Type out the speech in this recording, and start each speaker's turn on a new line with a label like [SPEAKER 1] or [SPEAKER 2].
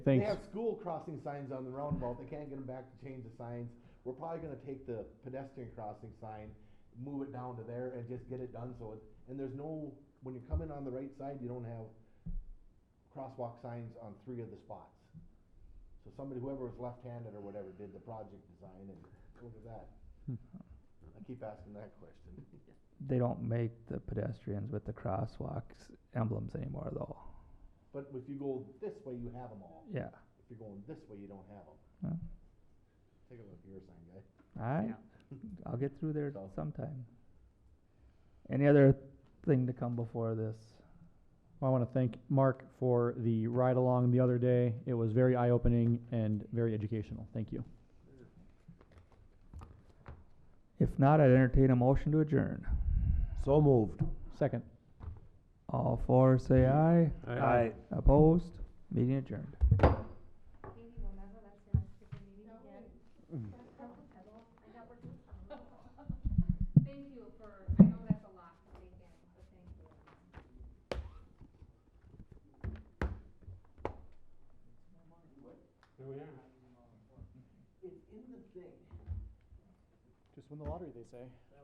[SPEAKER 1] They
[SPEAKER 2] Thanks.
[SPEAKER 1] have school crossing signs on the roundabout, they can't get them back to change the signs. We're probably gonna take the pedestrian crossing sign, move it down to there and just get it done, so it, and there's no, when you come in on the right side, you don't have crosswalk signs on three of the spots. So somebody, whoever was left-handed or whatever, did the project design and look at that. I keep asking that question.
[SPEAKER 2] They don't make the pedestrians with the crosswalks emblems anymore though.
[SPEAKER 1] But if you go this way, you have them all.
[SPEAKER 2] Yeah,
[SPEAKER 1] If you're going this way, you don't have
[SPEAKER 2] Yeah.
[SPEAKER 1] them. Take a look at your sign, guy.
[SPEAKER 2] I,
[SPEAKER 3] Yeah.
[SPEAKER 2] I'll get through there
[SPEAKER 1] So-
[SPEAKER 2] sometime. Any other thing to come before this?
[SPEAKER 4] I want to thank Mark for the ride along the other day. It was very eye opening and very educational. Thank you.
[SPEAKER 2] If not, I'd entertain a motion to adjourn.
[SPEAKER 5] So moved.
[SPEAKER 4] Second.
[SPEAKER 2] All four say aye,
[SPEAKER 5] Aye.
[SPEAKER 2] opposed, meeting adjourned.
[SPEAKER 6] Thank you for, I know that's a lot to take in, but thank you.
[SPEAKER 4] Just win the lottery, they say.